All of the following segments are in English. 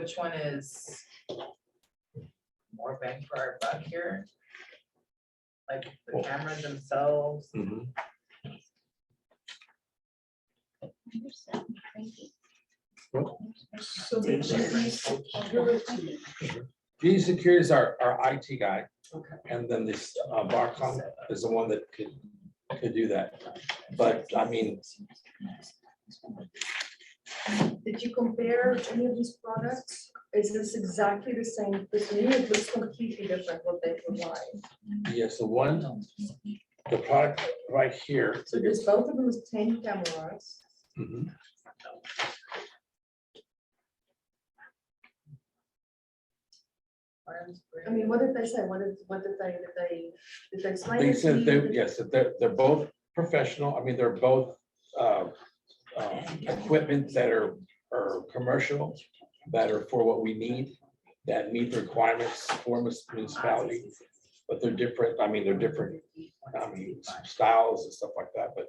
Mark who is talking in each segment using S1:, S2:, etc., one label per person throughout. S1: Which one is more bang for our buck here? Like the cameras themselves,
S2: Mhm.
S3: So the GE security,
S2: GE Secure E is our, our IT guy.
S1: Okay.
S2: And then this uh, Barcom is the one that could, could do that. But I mean,
S3: did you compare any of these products? Is this exactly the same? Because to me, it looks completely different what they provide.
S2: yes, the one, the product right here.
S3: So there's both of them with ten cameras.
S2: Mhm.
S1: arms,
S3: I mean, what did they say? What did, what did they, did they, did they explain?
S2: They
S3: it to
S2: said
S3: you?
S2: they,
S3: Did-
S2: yes, that they're, they're both professional. I mean, they're both uh, uh, equipment that are, are commercial, that are for what we need, that meet the requirements for mus- municipality. But they're different, I mean, they're different, I mean, styles and stuff like that, but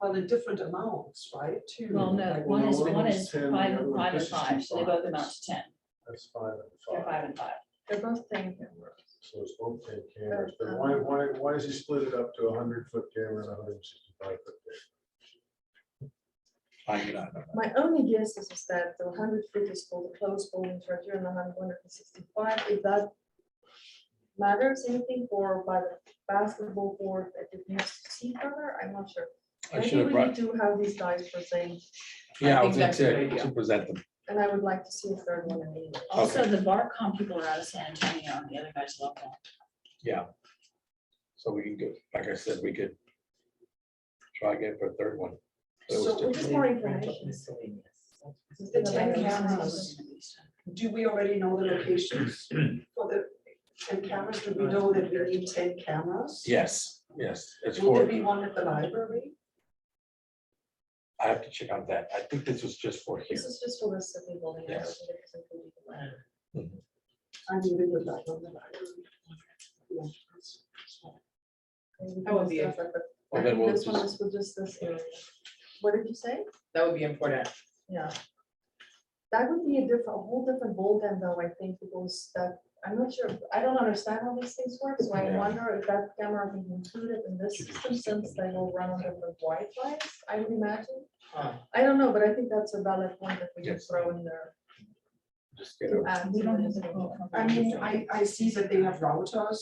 S4: Well, they're different amounts, right, too?
S5: Well, no,
S6: Like,
S5: one
S6: well,
S5: is,
S6: one of
S5: one
S6: them's
S5: is
S6: 10,
S5: five and
S6: the
S5: five
S6: other
S5: and
S6: one's just
S5: five, so they both
S6: 55.
S5: amount to ten,
S6: That's five
S5: they're
S6: and
S5: five
S6: five,
S5: and five.
S3: They're both ten cameras.
S6: so it's both ten cameras, but why, why, why is he split it up to a hundred foot camera and a hundred and sixty-five foot?
S2: I do not know.
S3: My only guess is is that the hundred foot is called the closed ball interview and the hundred one hundred and sixty-five, if that matters anything for by the basketball board that it needs to see further, I'm not sure.
S2: I
S3: Maybe
S2: should have
S3: we
S2: brought,
S3: need to have these guys present,
S2: yeah, I
S1: think
S2: was gonna
S1: that's a
S2: say,
S1: good idea.
S2: to present them.
S3: and I would like to see a third one in English.
S5: Also, the Barcom people are out of San Antonio, and the other guy's local.
S2: So we can go, like I said, we could try again for a third one. That was
S4: So
S2: different.
S4: we
S3: Just more information.
S4: The ten cameras, do we already know the locations for the ten cameras? Do we know that we need ten cameras?
S2: Yes, yes, it's
S4: Will there
S2: for,
S4: be one at the library?
S2: I have to check on that. I think this was just for here.
S3: This is just for the city building. I don't
S2: Yes.
S3: think it's included in that.
S4: I mean, we would like on the library.
S3: Maybe we
S1: That would be
S3: can discuss that, but
S2: Well, then we'll
S3: This one
S2: just,
S3: is for just this area. What did you say?
S1: That would be important.
S3: Yeah. That would be a different, a whole different ballgame though, I think, because that, I'm not sure, I don't understand how these things work, so I
S2: Yeah.
S3: wonder if that camera can be included in this system since they will run on different Wi-Fi's, I would imagine.
S1: Huh.
S3: I don't know, but I think that's a valid point that we could
S2: Yes.
S3: throw in there.
S2: just get
S3: to
S2: a-
S3: add
S5: We
S3: to
S5: don't have
S3: it.
S5: the quote from
S4: I mean, I, I see that they have routers,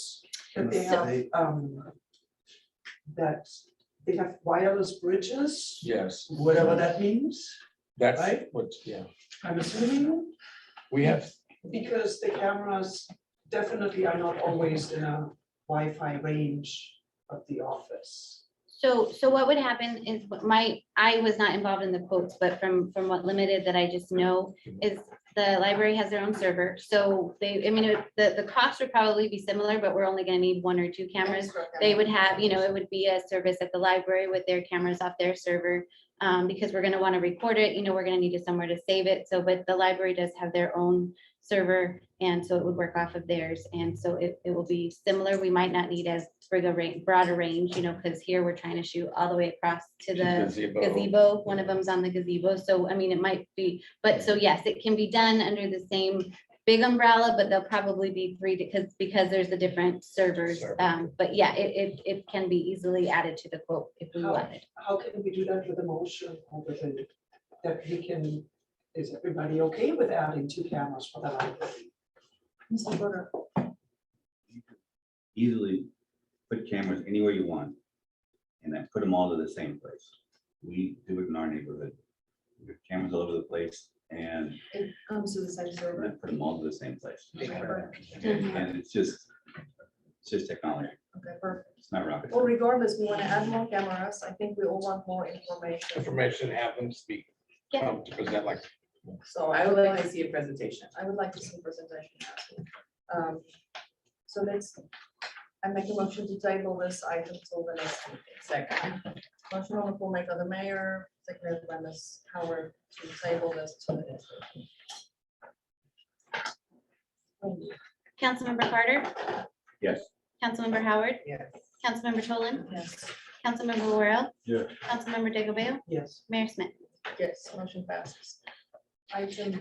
S4: that they have, um, that they have wireless bridges,
S2: yes,
S4: whatever that means,
S2: that's
S4: Right?
S2: what, yeah,
S4: I'm assuming.
S2: we have,
S4: Because the cameras definitely are not always in a Wi-Fi range of the office.
S7: So, so what would happen is what my, I was not involved in the quotes, but from, from what limited that I just know is the library has their own server. So they, I mean, it- the, the cost would probably be similar, but we're only gonna need one or two cameras.
S3: Extra
S7: They
S3: camera.
S7: would have, you know, it would be a service at the library with their cameras off their server. Um, because we're gonna wanna record it, you know, we're gonna need it somewhere to save it. So, but the library does have their own server. And so it would work off of theirs. And so it, it will be similar. We might not need as big a range, broader range, you know, because here we're trying to shoot all the way across to the
S2: gazebo.
S7: gazebo, one of them's on the gazebo, so I mean, it might be, but so yes, it can be done under the same big umbrella, but there'll probably be three because, because there's the different servers.
S2: Server.
S7: Um, but yeah, it, it, it can be easily added to the quote if we
S4: How-
S7: wanted.
S4: How can we do that with a motion or with a, that we can, is everybody okay with adding two cameras for the library?
S3: Mr. Berger,
S8: easily put cameras anywhere you want. And then put them all to the same place. We do it in our neighborhood. We have Cameras all over the place and
S3: it comes to the same server.
S8: then put them all to the same place.
S3: Server.
S8: And it's just, it's just technology.
S3: Okay, perfect.
S8: It's not rocket
S3: Well,
S8: science.
S3: regardless, we want to add more cameras. I think we all want more information.
S2: Information, have them speak,
S7: Yeah.
S2: um, to present like,
S3: So
S1: I would like to see a presentation.
S3: I would like to see presentation. Um, So let's, I make a motion to table this item till the next meeting.
S1: Second,
S3: Motion on the floor made by the mayor, seconded by Ms. Howard to table this till the next meeting.
S7: Councilmember Carter,
S8: Yes.
S7: Councilmember Howard,
S1: yes.
S7: Councilmember Tolan,
S3: Yes.
S7: Councilmember Worrell,
S8: Yeah.
S7: Councilmember Digglebale,
S4: Yes.
S7: Mayor Smith.
S3: Yes, motion passes. item